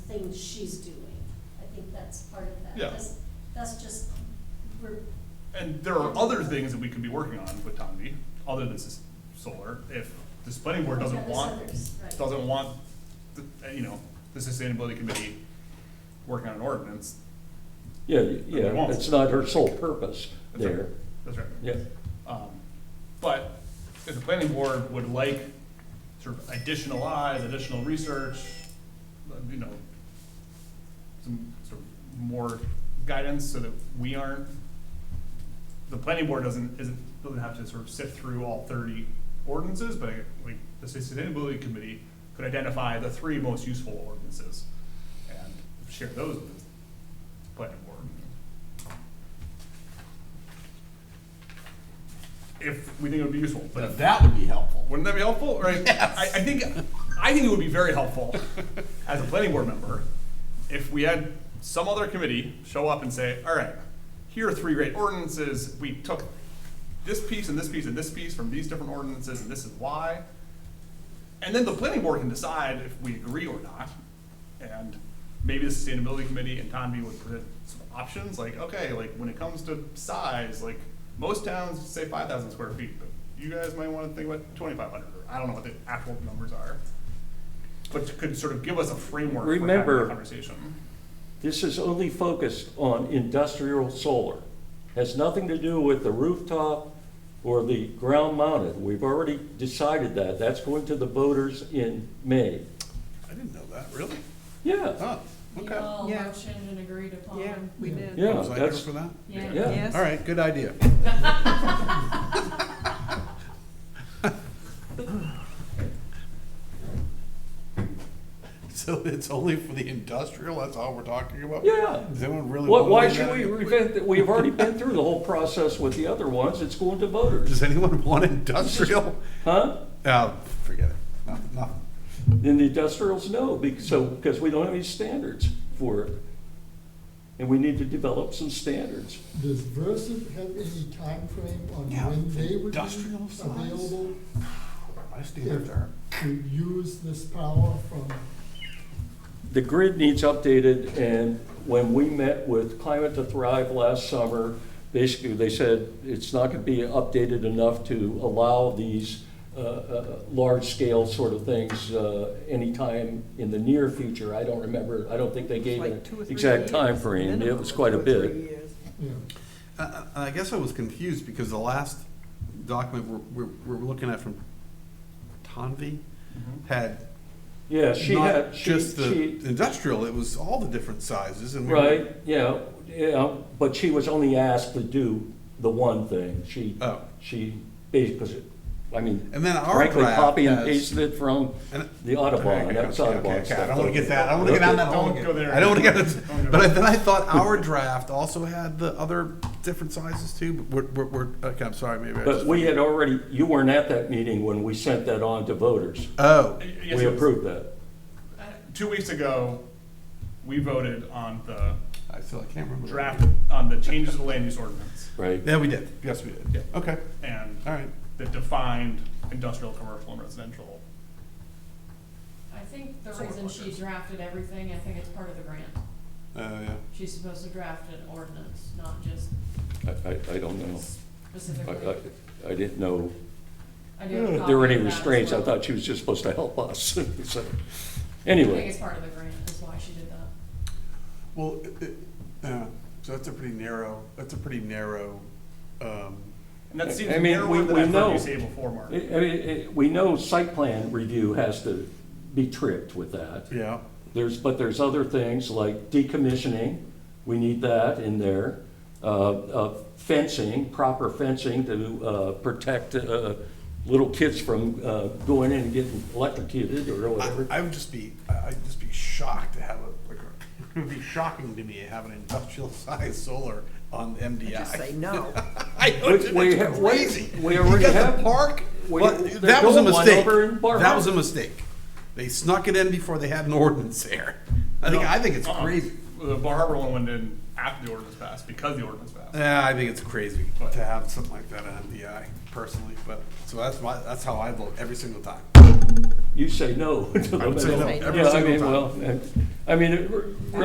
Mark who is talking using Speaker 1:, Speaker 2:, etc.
Speaker 1: things she's doing. I think that's part of that.
Speaker 2: Yeah.
Speaker 1: That's- That's just, we're,
Speaker 2: And there are other things that we could be working on with Tomby, other than s- solar, if the planning board doesn't
Speaker 1: Yeah, there's
Speaker 2: want,
Speaker 1: others, right.
Speaker 2: doesn't want, the- uh, you know, the sustainability committee working on an ordinance.
Speaker 3: Yeah, y-
Speaker 2: They
Speaker 3: yeah,
Speaker 2: won't.
Speaker 3: it's not her sole purpose
Speaker 2: That's right.
Speaker 3: there.
Speaker 2: That's right.
Speaker 3: Yeah,
Speaker 2: Um, But if the planning board would like sort of additional eyes, additional research, uh, you know, some sort of more guidance so that we aren't, the planning board doesn't, isn't, doesn't have to sort of sift through all thirty ordinances, but like, the sustainability committee could identify the three most useful ordinances and share those with the planning board. if we think it would be useful. But if-
Speaker 4: that would be helpful.
Speaker 2: wouldn't that be helpful? Right? I, I think I think it would be very helpful as a planning board member if we had some other committee show up and say, "All right, here are three great ordinances. We took this piece and this piece and this piece from these different ordinances, and this is why." And then the planning board can decide if we agree or not. And maybe the sustainability committee and Tomby would present some options, like, okay, like when it comes to size, like most towns say five thousand square feet, but you guys might wanna think about twenty-five hundred, or I don't know what the actual numbers are. But could sort of give us a framework for having that
Speaker 3: Remember-
Speaker 2: conversation.
Speaker 3: this is only focused on industrial solar. Has nothing to do with the rooftop or the ground mounted. We've already decided that. That's going to the voters in May.
Speaker 4: I didn't know that, really?
Speaker 3: Yeah,
Speaker 4: Huh,
Speaker 5: We
Speaker 4: okay.
Speaker 5: all
Speaker 6: Yeah.
Speaker 5: motioned and agreed
Speaker 6: Yeah,
Speaker 5: upon.
Speaker 6: we did.
Speaker 3: Yeah,
Speaker 4: Was I there
Speaker 3: that's-
Speaker 4: for that?
Speaker 5: Yeah.
Speaker 3: yeah.
Speaker 6: Yes.
Speaker 4: Um, All right, good idea. So it's only for the industrial, that's all we're talking about?
Speaker 3: Yeah.
Speaker 4: Does anyone really
Speaker 3: Why,
Speaker 4: want to?
Speaker 3: why
Speaker 4: do
Speaker 3: should
Speaker 4: that?
Speaker 3: we revent, that? we've already been through the whole process with the other ones. It's going to voters.
Speaker 4: Does anyone want industrial?
Speaker 3: Huh?
Speaker 4: Oh, forget it. No,
Speaker 2: Uh,
Speaker 4: no.
Speaker 3: And the industrials, no, because, so, because we don't have any standards for it. And we need to develop some standards.
Speaker 7: Does Versant have any time frame on
Speaker 4: Yeah,
Speaker 7: when they would be
Speaker 4: industrial size.
Speaker 7: available
Speaker 4: I stay up there.
Speaker 7: to use this power from,
Speaker 3: The grid needs updated, and when we met with Climate to Thrive last summer, basically, they said it's not gonna be updated enough to allow these uh, uh, large-scale sort of things uh, anytime in the near future. I don't remember, I don't think they gave
Speaker 6: Like
Speaker 3: an
Speaker 6: two or three
Speaker 3: exact
Speaker 6: years,
Speaker 3: time frame. It
Speaker 6: minimum
Speaker 3: was
Speaker 6: of
Speaker 3: quite a
Speaker 6: two or three
Speaker 3: bit.
Speaker 6: years.
Speaker 7: you know,
Speaker 4: I- I I guess I was confused because the last document we're, we're, we're looking at from Tanvi had
Speaker 3: Yeah, Mm-hmm. she
Speaker 4: not
Speaker 3: had, she,
Speaker 4: just the
Speaker 3: she,
Speaker 4: industrial, it was all the different sizes and we were-
Speaker 3: Right, yeah, yeah, but she was only asked to do the one thing. She,
Speaker 4: Oh.
Speaker 3: she, because, I mean,
Speaker 4: And then our
Speaker 3: frankly,
Speaker 4: draft
Speaker 3: copy and
Speaker 4: has-
Speaker 3: pasted it from
Speaker 4: And-
Speaker 3: the Audubon, that was
Speaker 4: Okay, okay,
Speaker 3: Audubon
Speaker 4: okay,
Speaker 3: stuff.
Speaker 4: I don't wanna get that, I don't wanna get down that hole
Speaker 2: Don't
Speaker 4: again.
Speaker 2: go there.
Speaker 4: I don't wanna get,
Speaker 2: Don't go
Speaker 4: but I-
Speaker 2: there.
Speaker 4: then I thought our draft also had the other different sizes too, but we're, we're- we're, okay, I'm sorry, maybe I
Speaker 3: But
Speaker 4: just.
Speaker 3: we had already, you weren't at that meeting when we sent that on to voters.
Speaker 4: Oh,
Speaker 2: Y- yes,
Speaker 3: We
Speaker 2: it was-
Speaker 3: approved that.
Speaker 2: Two weeks ago, we voted on the
Speaker 4: I still, I can't remember.
Speaker 2: draft, on the changes to the land use ordinance
Speaker 3: Right.
Speaker 4: Yeah, we did, yes, we did,
Speaker 2: Yeah.
Speaker 4: okay,
Speaker 2: and
Speaker 4: all right.
Speaker 2: that defined industrial, commercial, and residential.
Speaker 5: I think the
Speaker 2: Solar
Speaker 5: reason she
Speaker 2: workers.
Speaker 5: drafted everything, I think it's part of the grant.
Speaker 4: Oh, yeah.
Speaker 5: She's supposed to draft an ordinance, not just
Speaker 3: I, I, I don't know. Oh. I,
Speaker 5: specifically.
Speaker 3: I, I didn't know
Speaker 5: I do have a
Speaker 3: if there were
Speaker 5: copy
Speaker 3: any
Speaker 5: of that as
Speaker 3: restraints. I
Speaker 5: well.
Speaker 3: thought she was just supposed to help us. So,
Speaker 5: I think
Speaker 3: Anyway,
Speaker 5: it's part of the grant is why she did that.
Speaker 4: Well, it, it, yeah, so that's a pretty narrow, that's a pretty narrow, um,
Speaker 2: And that seems
Speaker 3: I mean, we-
Speaker 2: narrower than
Speaker 3: we
Speaker 2: I've heard
Speaker 3: know-
Speaker 2: you say before, Mark.
Speaker 3: I- I mean, it- we know site plan review has to be tripped with that.
Speaker 4: yeah.
Speaker 3: There's, but there's other things like decommissioning, we need that in there. Uh, uh, Fencing, proper fencing to uh, protect uh, little kids from uh, going in and getting electrocuted or
Speaker 4: I,
Speaker 3: whatever.
Speaker 4: I would just be, I- I'd just be shocked to have a, like, a- it would be shocking to me to have an industrial sized solar on MDI.
Speaker 6: Just say no.
Speaker 4: I know, it's
Speaker 3: We- we have- we-
Speaker 4: crazy.
Speaker 3: we already
Speaker 4: You got
Speaker 3: have-
Speaker 4: the park,
Speaker 3: we-
Speaker 4: well,
Speaker 3: they're
Speaker 4: that was a
Speaker 3: doing one
Speaker 4: mistake,
Speaker 3: over in Bar
Speaker 4: that was a
Speaker 3: Harbor.
Speaker 4: mistake. They snuck it in before they had an ordinance there. I think,
Speaker 2: No,
Speaker 4: I think it's
Speaker 2: uh-uh.
Speaker 4: crazy.
Speaker 2: The Bar Harbor one went in after the ordinance passed, because the ordinance passed.
Speaker 4: Yeah, I think it's crazy to have something like that on MDI personally, but, so that's my, that's how I vote every single time.
Speaker 3: you say no. to
Speaker 4: I would
Speaker 3: the
Speaker 4: say no
Speaker 3: bill.
Speaker 4: every
Speaker 3: Yeah, I
Speaker 4: single
Speaker 3: mean,
Speaker 4: time.
Speaker 3: well, I mean, it-